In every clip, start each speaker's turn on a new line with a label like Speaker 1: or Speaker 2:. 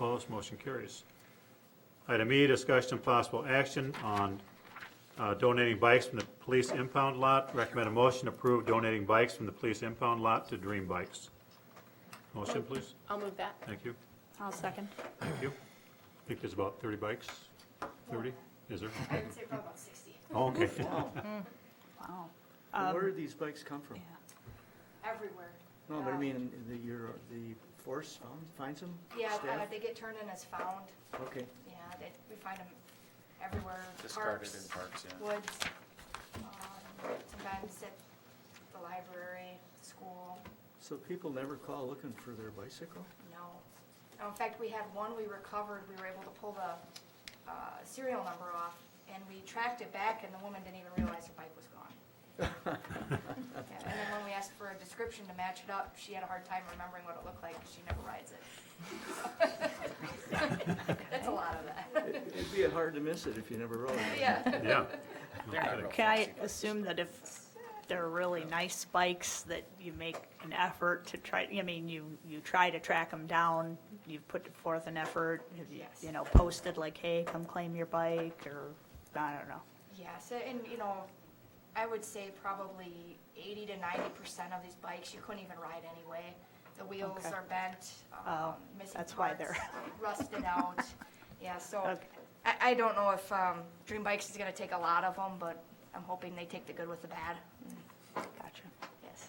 Speaker 1: Opposed, motion carries. Item E, discussion and possible action on uh, donating bikes from the police impound lot. Recommend a motion to approve donating bikes from the police impound lot to Dream Bikes. Motion, please.
Speaker 2: I'll move that.
Speaker 1: Thank you.
Speaker 3: I'll second.
Speaker 1: Thank you. I think there's about 30 bikes. 30? Is there?
Speaker 4: I would say probably about sixty.
Speaker 1: Oh, Okay.
Speaker 3: Wow.
Speaker 4: Um,
Speaker 5: Where did these bikes come from?
Speaker 3: Yeah.
Speaker 4: Everywhere.
Speaker 5: No, but I
Speaker 4: Um,
Speaker 5: mean, the, your, the force found, finds them?
Speaker 4: Yeah, uh,
Speaker 5: Staff?
Speaker 4: they get turned in as found,
Speaker 5: Okay,
Speaker 4: yeah, they, we find them everywhere,
Speaker 6: Discarded in
Speaker 4: parks,
Speaker 6: parks, yeah.
Speaker 4: woods. um, Sometimes at the library, school,
Speaker 5: so people never call looking for their bicycle?
Speaker 4: no. Uh, In fact, we had one we recovered, we were able to pull the uh, serial number off, and we tracked it back, and the woman didn't even realize her bike was gone. Yeah, And then when we asked for a description to match it up, she had a hard time remembering what it looked like, 'cause she never rides it. That's a lot of that,
Speaker 5: It- It'd be hard to miss it if you never rode it.
Speaker 4: yeah.
Speaker 1: Yeah.
Speaker 6: They're not real
Speaker 3: Can I
Speaker 6: fancy bikes.
Speaker 3: assume that if they're really nice bikes, that you make an effort to try, I mean, you, you try to track them down, you've put forth an effort, have you-
Speaker 4: Yes.
Speaker 3: you know, posted like, hey, come claim your bike, or, I don't know.
Speaker 4: Yes, and you know, I would say probably eighty to ninety percent of these bikes, you couldn't even ride anyway. The wheels
Speaker 3: Okay.
Speaker 4: are bent, um,
Speaker 3: Oh,
Speaker 4: missing
Speaker 3: that's why
Speaker 4: parts,
Speaker 3: they're-
Speaker 4: Rusted out, yeah, so,
Speaker 3: Okay.
Speaker 4: I, I don't know if, um, Dream Bikes is gonna take a lot of them, but I'm hoping they take the good with the bad,
Speaker 3: Mm. Gotcha.
Speaker 4: yes.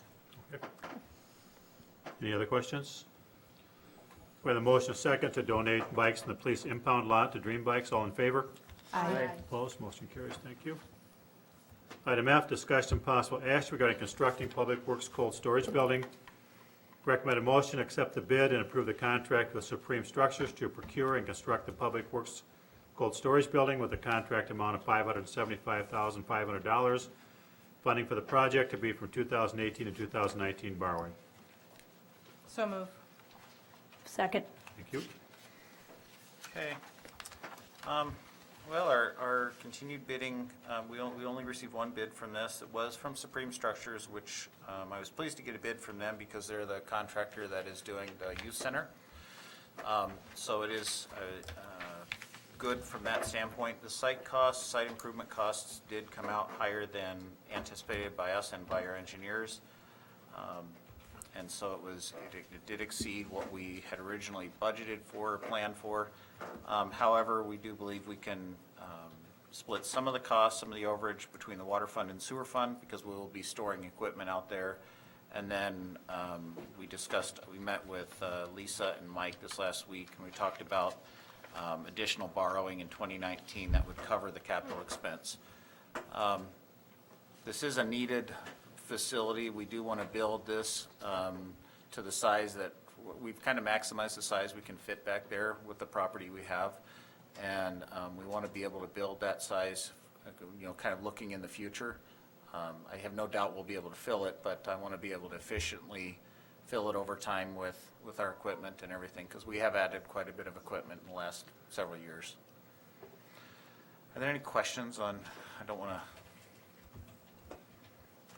Speaker 1: Any other questions? We have a motion of second to donate bikes from the police impound lot to Dream Bikes. All in favor?
Speaker 3: I,
Speaker 1: Opposed, motion carries. Thank you. Item F, discussion and possible action regarding constructing Public Works cold storage building. Recommended motion, accept the bid and approve the contract with Supreme Structures to procure and construct the Public Works cold storage building with a contract amount of $575,500. Funding for the project to be from 2018 to 2019 borrowing.
Speaker 2: So move.
Speaker 3: second.
Speaker 1: Thank you.
Speaker 6: Okay. Um, Well, our, our continued bidding, uh, we only, we only received one bid from this. It was from Supreme Structures, which um, I was pleased to get a bid from them because they're the contractor that is doing the youth center. Um, So it is uh, uh, good from that standpoint. The site costs, site improvement costs did come out higher than anticipated by us and by our engineers. Um, And so it was, it- it did exceed what we had originally budgeted for, planned for. Um, However, we do believe we can um, split some of the costs, some of the overage between the water fund and sewer fund because we will be storing equipment out there. And then um, we discussed, we met with uh, Lisa and Mike this last week and we talked about um, additional borrowing in 2019 that would cover the capital expense this is a needed facility. We do want to build this um, to the size that, we've kind of maximized the size we can fit back there with the property we have. And um, we want to be able to build that size, you know, kind of looking in the future. Um, I have no doubt we'll be able to fill it, but I want to be able to efficiently fill it over time with, with our equipment and everything, because we have added quite a bit of equipment in the last several years. Are there any questions on, I don't want to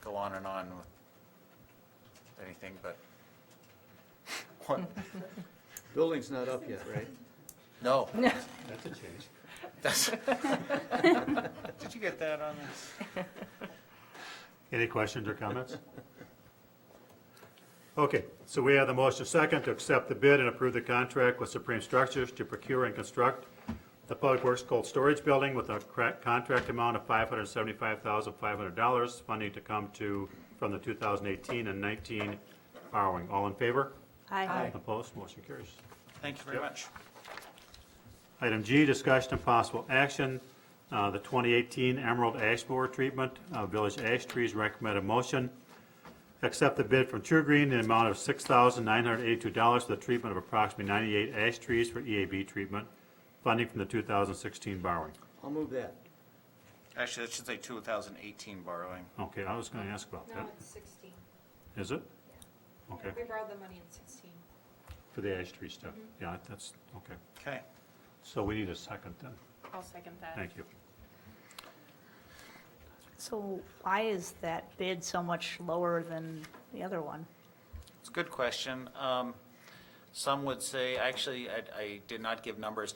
Speaker 6: go on and on with anything, but what?
Speaker 5: Building's not up yet, right?
Speaker 6: No.
Speaker 1: That's a change.
Speaker 6: That's- Did you get that on this?
Speaker 1: Any questions or comments? Okay, so we have the motion of second to accept the bid and approve the contract with Supreme Structures to procure and construct the Public Works Cold Storage Building with a cra- contract amount of $575,500, funding to come to, from the 2018 and 19 borrowing. All in favor?
Speaker 3: I,
Speaker 1: Opposed? Motion carries.
Speaker 6: Thank you very much.
Speaker 1: Item G, discussion and possible action, uh, the 2018 Emerald Ash Borer Treatment, uh, Village Ash Trees, recommended motion. Accept the bid from True Green in the amount of $6,982 for the treatment of approximately 98 ash trees for EAB treatment, funding from the 2016 borrowing.
Speaker 5: I'll move that.
Speaker 6: Actually, that should say 2018 borrowing.
Speaker 1: Okay, I was going to ask about
Speaker 7: No,
Speaker 1: that.
Speaker 7: it's sixteen.
Speaker 1: Is it? Okay,
Speaker 7: We borrowed the money in sixteen. Mm-hmm.
Speaker 1: for the ash tree stuff. Yeah, that's, okay.
Speaker 6: Okay.
Speaker 1: So we need a second then.
Speaker 2: I'll second that.
Speaker 1: Thank you.
Speaker 3: so why is that bid so much lower than the other one?
Speaker 6: It's a good question. Um, Some would say, actually, I, I did not give numbers